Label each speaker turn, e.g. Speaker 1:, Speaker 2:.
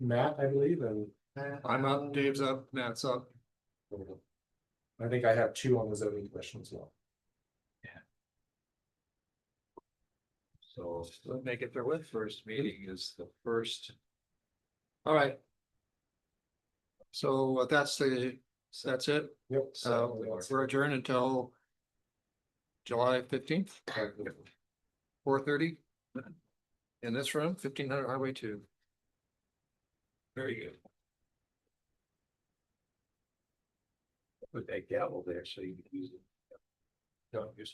Speaker 1: Matt, I believe, and
Speaker 2: I'm up, Dave's up, Nat's up.
Speaker 1: I think I have two on the zoning commission as well.
Speaker 3: So let's make it their with first meeting is the first.
Speaker 2: All right. So that's the, that's it.
Speaker 1: Yep.
Speaker 2: So we're adjourned until July fifteenth, four thirty. In this room, fifteen hundred Highway two.
Speaker 3: Very good. Put that gavel there so you can use it. Don't use